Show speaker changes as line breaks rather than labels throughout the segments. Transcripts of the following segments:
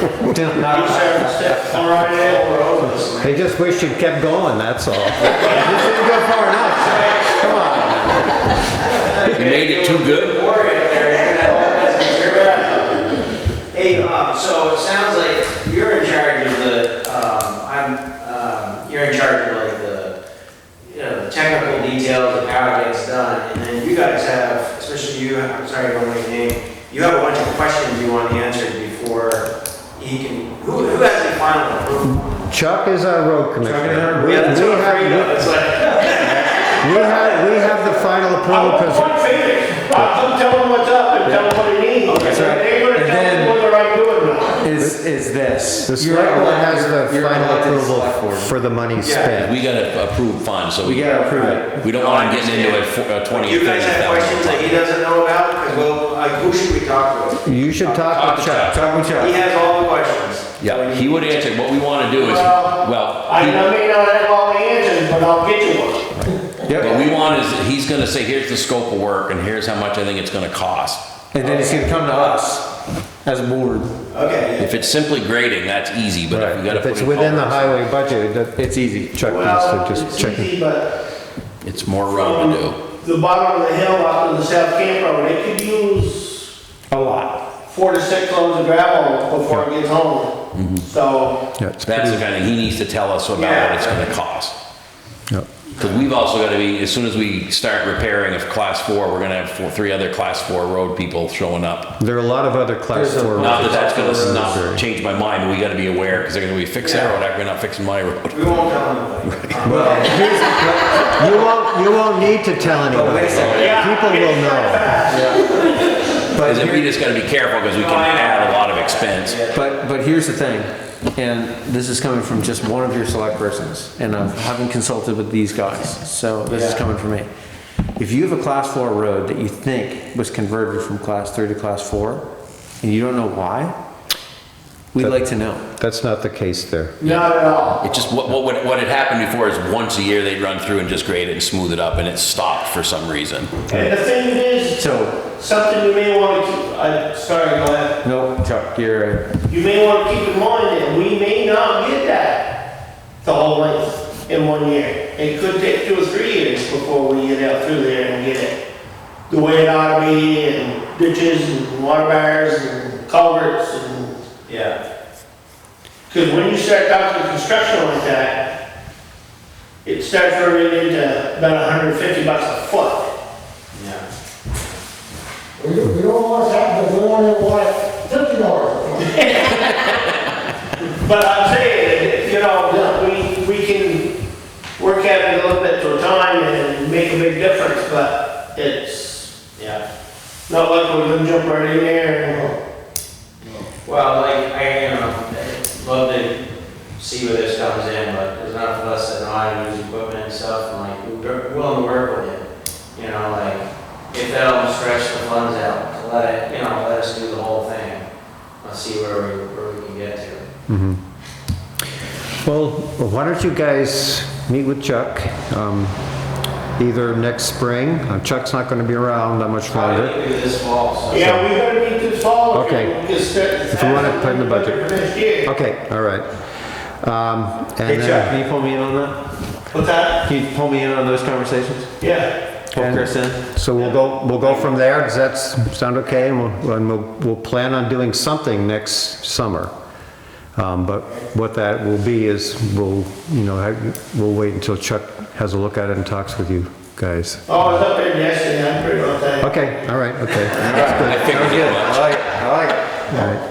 Didn't
You
know.
said, step right in, we're over this.
They just wished you'd kept going, that's all. This didn't go far enough. Come on.
You made it too good?
Worry up there. Hey, um, so it sounds like you're in charge of the, um, I'm, um, you're in charge of like the, you know, the technical details of how it gets done. And then you guys have, especially you, I'm sorry, I don't know your name, you have a bunch of questions you want answered before he can, who, who has the final approval?
Chuck is our road commissioner. uh, We-
Yeah, that's
we
what I'm
have-
afraid of. It's like,
We have, we have the final
I
Oh,
approval
want
because
one finish. Bob, tell them what's up and tell them what they need.
That's right.
They're gonna
And
tell them
then-
whether I'm doing it or not.
is, is this.
the
You're
select board has
elect-
the
you're
final
elected select
approval
board.
for the money spent.
We gotta approve funds, so
We
we,
gotta approve it.
we don't want him getting into a fo- a twenty,
you
thirty
guys have questions that
thousand.
he doesn't know about? Because well, like, who should we talk to?
You should talk
Talk
with
to
Chuck.
Talk with
He
Chuck.
has all the questions.
Yeah, he would answer, what we wanna do is,
Well,
well,
I
he-
may not have all the answers, but I'll get you one.
what
Yep.
we want is, he's gonna say, here's the scope of work, and here's how much I think it's gonna cost.
And then it's gonna come to us as a board.
Okay.
If it's simply grading, that's easy, but if we gotta
If
put
it's
in
within the
culverts,
highway budget, that-
It's easy.
Chuck
Well,
needs to
it's
just check. it.
easy, but
It's more road to do.
from the bottom of the hill up in the South Camp Road, it could use
A lot.
four to six loads of gravel before it gets
Mm-hmm.
home. So,
Yeah, it's
That's the
pretty,
kind of, he needs to tell us about
Yeah.
what it's gonna cost.
yeah.
Because we've also got to be, as soon as we start repairing a class four, we're going to have four, three other class four road people showing up.
There are a lot of other class
There's a-
four.
Not that
roads.
that's going to
Sure.
not change my mind, but we got to be aware because they're going to be fix that
Yeah.
road, we're not fixing my road.
We won't tell anybody. Um,
Well, here's, you won't, you won't need to tell
But wait
anybody.
a second.
People will know.
But
Because
here-
we just got to be careful because we can
No, I know.
add a lot of expense.
But, but here's the thing, and this is coming from just one of your select persons, and I haven't consulted with these guys, so this is coming from me. If you have a class four road that you think was converted from class three to class four, and you don't know why, we'd like to know.
That's not the case there.
not at all.
It just, what, what, would- what had happened before is once a year they'd run through and just grade it and smooth it up and it stopped for some reason.
And the thing is,
So,
something you may want to keep, i sorry, go ahead.
no, Chuck, you're,
You may want to keep in mind that we may not get that, the whole length in one year. It could take two or three years before we get out through there and get it the way it ought to be, and ditches and water barriers and culverts and,
Yeah.
because when you start talking construction like that, it starts running into about hundred and fifty bucks a foot.
Yeah.
We don't, we don't want to have the one in white fifty dollars.
But I'm saying, you know, we, we can work at it a little bit to a time and make a big difference, but it's
Yeah.
not like we're gonna jump right in there
Well, like, I, you know, I'd love to see where this comes in, but there's enough of us that know how to use equipment and stuff, and like, we're willing to work with it. You know, like, if that'll stretch the funds out, to let it, you know, let us do the whole thing. Let's see where we, where we can get to.
Well, why don't you guys meet with Chuck, um, either next spring, Uh, Chuck's not gonna be around that much
Probably
longer.
Oh,
do this fall,
and,
so.
yeah, we gotta meet this fall.
Okay. If
If
you wanna put in the budget.
Next year.
Okay, all right. Um,
hey
and
Chuck,
then,
can you pull me in on that?
What's that?
Can you pull me in on those conversations?
Yeah,
Pull
And-
Chris in?
so we'll go, we'll go from there, does that s- sound okay? And we'll, and we'll, we'll plan on doing something next summer. Um, but what that will be is, we'll, you know, have- we'll wait until Chuck has a look at it and talks with you guys.
oh, I was up there yesterday, I'm pretty much that.
Okay, all right, okay.
I figured it
I
much.
like it, I like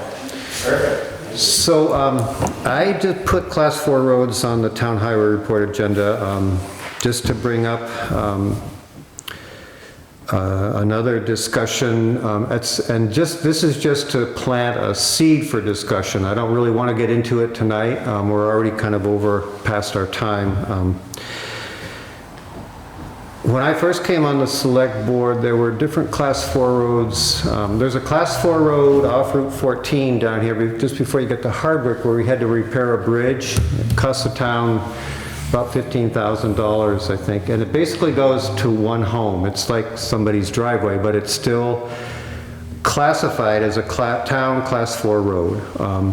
it.
So um, I just put class four roads on the town highway report agenda, um, just to bring up um, uh, another discussion. um, it's- And just, this is just to plant a seed for discussion. I don't really want to get into it tonight. Um, We're already kind of over past our time. Um, when I first came on the select board, there were different class four roads. Um, There's a class four road off Route 14 down here, be- just before you get to Hardwick, where we had to repair a bridge. It Cost the town about $15,000, I think. And it basically goes to one home. It's like somebody's driveway, but it's still classified as a cla- town class four road. Um,